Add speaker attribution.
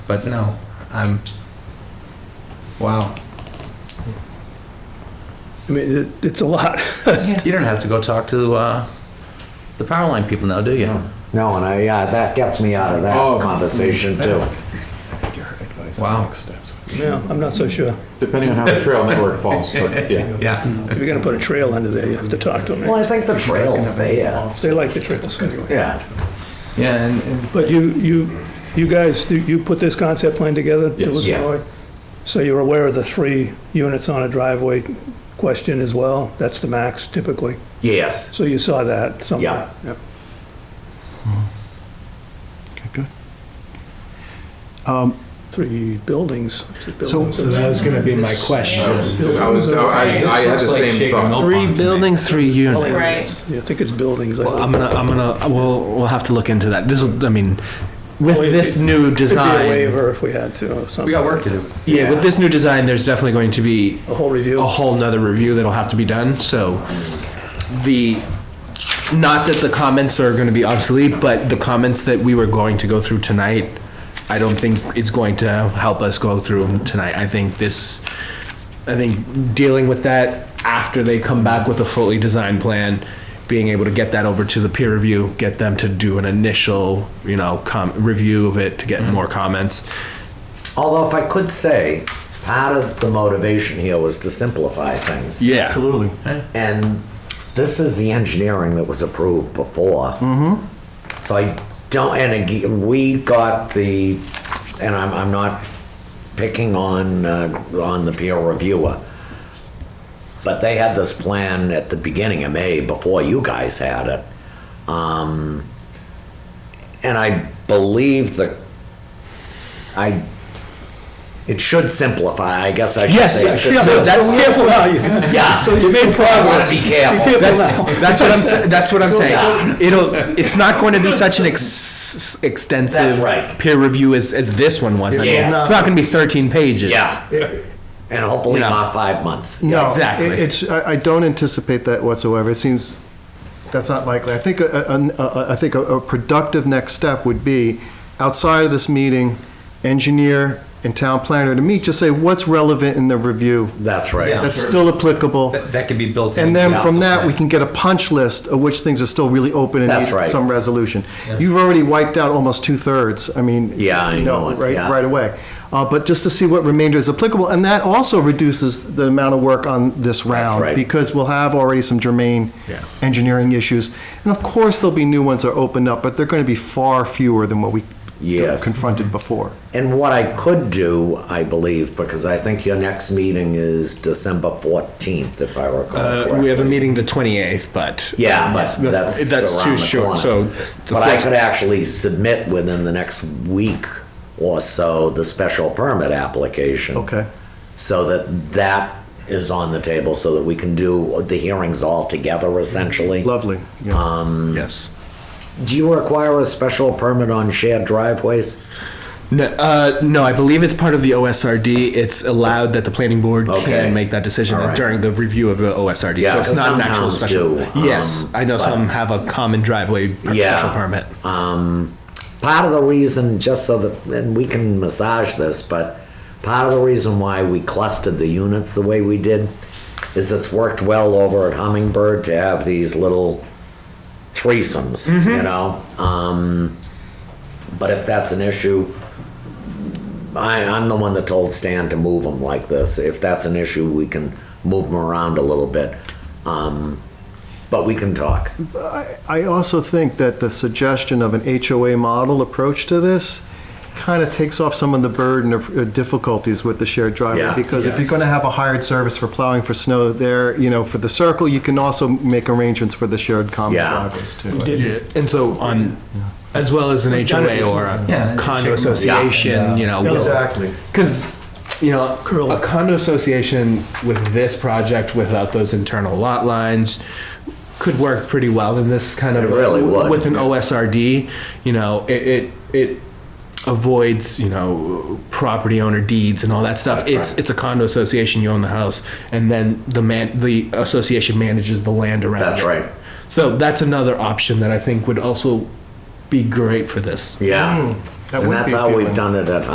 Speaker 1: But no, I'm, wow.
Speaker 2: I mean, it, it's a lot.
Speaker 1: You don't have to go talk to uh, the power line people now, do you?
Speaker 3: No, and I, yeah, that gets me out of that
Speaker 4: Oh.
Speaker 3: conversation too.
Speaker 4: Your advice
Speaker 1: Wow.
Speaker 4: on next steps.
Speaker 2: Yeah, I'm not so sure.
Speaker 4: Depending on how the trail network falls, but yeah.
Speaker 1: Yeah.
Speaker 5: Mm-hmm.
Speaker 2: If you're gonna put a trail under there, you have to talk to
Speaker 3: Well,
Speaker 2: them.
Speaker 3: I think the trail's there.
Speaker 2: They like the trails anyway.
Speaker 3: Yeah.
Speaker 1: Yeah, and, and
Speaker 2: But you, you, you guys, do you put this concept plan together?
Speaker 4: Yes.
Speaker 2: Louis and
Speaker 3: Yes.
Speaker 2: Roy? So you're aware of the three units on a driveway question as well? That's the max typically.
Speaker 3: Yes.
Speaker 2: So you saw that
Speaker 3: Yeah.
Speaker 2: somewhere? Yeah.
Speaker 5: Okay, good.
Speaker 2: Um, Three buildings. Is it
Speaker 5: So
Speaker 2: buildings?
Speaker 5: that was going to be my question.
Speaker 4: I was, I, I had the same thought.
Speaker 5: Three buildings, three units.
Speaker 6: Right.
Speaker 2: Yeah, I think it's buildings. I
Speaker 5: Well, I'm
Speaker 2: think.
Speaker 5: gonna, I'm gonna, we'll, we'll have to look into that. This will, I mean, with
Speaker 2: Well, it-
Speaker 5: this new
Speaker 2: Could be a
Speaker 5: design,
Speaker 2: waiver if we had to, or something.
Speaker 1: we got work to do.
Speaker 5: yeah, with this new design, there's definitely going to be
Speaker 2: A whole
Speaker 5: a
Speaker 2: review.
Speaker 5: whole nother review that'll have to be done, so the, not that the comments are gonna be obsolete, but the comments that we were going to go through tonight, I don't think it's going to help us go through them tonight. I think this, I think dealing with that after they come back with a fully designed plan, being able to get that over to the peer review, get them to do an initial, you know, com, review of it to get
Speaker 2: Mm-hmm.
Speaker 5: more comments.
Speaker 3: Although if I could say, part of the motivation here was to simplify things.
Speaker 5: Yeah.
Speaker 4: Absolutely.
Speaker 3: And this is the engineering that was approved before. So I don't, and again, we got the, and I'm, I'm not picking on, uh, on the peer reviewer. But they had this plan at the beginning of May before you guys had it. Um, and I believe that I, it should simplify, I guess I should
Speaker 5: Yes,
Speaker 3: say. it
Speaker 5: yeah,
Speaker 3: should
Speaker 5: yeah,
Speaker 3: simplify.
Speaker 5: that's-
Speaker 2: Careful now, you can.
Speaker 3: Yeah.
Speaker 2: So you made
Speaker 3: I wanna
Speaker 2: progress.
Speaker 3: be careful.
Speaker 5: That's, that's what I'm. sa- That's what I'm saying. It'll. It's not going to be such an ex- extensive
Speaker 3: That's right.
Speaker 5: peer review as, as this one was. I mean,
Speaker 3: Yeah.
Speaker 5: It's not going to be 13 pages.
Speaker 3: Yeah. And hopefully
Speaker 5: Yeah.
Speaker 3: not five months.
Speaker 5: Yeah,
Speaker 7: No,
Speaker 5: exactly.
Speaker 7: it- It's, I, I don't anticipate that whatsoever. It seems, that's not likely. I think, a- a- a- I think a- a productive next step would be, outside of this meeting, engineer and town planner to meet, just say, what's relevant in the review?
Speaker 3: That's right.
Speaker 1: Yeah.
Speaker 7: That's still applicable.
Speaker 1: That, that could be built in.
Speaker 7: And then
Speaker 3: Yeah.
Speaker 7: from that, we can get a punch list of which things are still really open and
Speaker 3: That's
Speaker 7: need
Speaker 3: right.
Speaker 7: some resolution. You've already wiped out almost two-thirds, I mean.
Speaker 3: Yeah, I
Speaker 7: you
Speaker 3: know it,
Speaker 7: Right,
Speaker 3: yeah.
Speaker 7: right away. Uh, But just to see what remainder is applicable, and that also reduces the amount of work on this round.
Speaker 3: right.
Speaker 7: Because we'll have already some germane
Speaker 5: Yeah.
Speaker 7: engineering issues. And of course, there'll be new ones that are opened up, but they're going to be far fewer than what we
Speaker 3: Yes. Mm-hmm.
Speaker 7: confronted before.
Speaker 3: And what I could do, I believe, because I think your next meeting is December 14th, if I recall
Speaker 5: Uh,
Speaker 3: correctly.
Speaker 5: we have a meeting the 28th, but
Speaker 3: Yeah, but that's,
Speaker 5: that's too
Speaker 3: around the
Speaker 5: short.
Speaker 3: corner.
Speaker 5: So, the
Speaker 3: but I
Speaker 5: first-
Speaker 3: could actually submit within the next week or so the special permit application.
Speaker 7: Okay.
Speaker 3: So that that is on the table, so that we can do the hearings all together, essentially.
Speaker 7: Lovely. yeah.
Speaker 5: yes.
Speaker 3: Do you require a special permit on shared driveways?
Speaker 5: No, uh, no, I believe it's part of the OSRD. It's allowed that the planning board
Speaker 3: Okay.
Speaker 5: can make that decision
Speaker 3: All right.
Speaker 5: during the review of the OSRD.
Speaker 3: Yeah,
Speaker 5: so it's
Speaker 3: 'cause
Speaker 5: not
Speaker 3: some
Speaker 5: an actual
Speaker 3: towns
Speaker 5: special.
Speaker 3: do,
Speaker 5: yes,
Speaker 3: um,
Speaker 5: I know
Speaker 3: but-
Speaker 5: some have a common driveway per-
Speaker 3: Yeah.
Speaker 5: special permit.
Speaker 3: Um, part of the reason, just so that, and we can massage this, but part of the reason why we clustered the units the way we did is it's worked well over at Hummingbird to have these little threesomes, you know? Um, but if that's an issue, I, I'm the one that told Stan to move them like this. If that's an issue, we can move them around a little bit. Um, but we can talk.
Speaker 7: I I also think that the suggestion of an HOA model approach to this kind of takes off some of the burden of uh, difficulties with the shared
Speaker 3: Yeah.
Speaker 7: driveway. Because if you're going to have a hired service for plowing for snow there, you know, for the circle, you can also make arrangements for the shared common
Speaker 3: Yeah.
Speaker 7: driveways too.
Speaker 5: And so on, as well as an HOA or a
Speaker 1: Yeah.
Speaker 5: condo association, you know, will-
Speaker 7: Exactly.
Speaker 5: Because, you know,
Speaker 2: Curl.
Speaker 5: a condo association with this project without those internal lot lines could work pretty well in this kind of.
Speaker 3: It really would.
Speaker 5: With an OSRD, you know, it, it, it avoids, you know, property owner deeds and all that stuff. It's, it's a condo association, you own the house, and then the man, the association manages the land around
Speaker 3: That's
Speaker 5: it.
Speaker 3: right.
Speaker 5: So that's another option that I think would also be great for this.
Speaker 3: Yeah.
Speaker 7: that
Speaker 3: and
Speaker 7: would
Speaker 3: that's
Speaker 7: be
Speaker 3: how we've
Speaker 7: appealing.
Speaker 3: done it at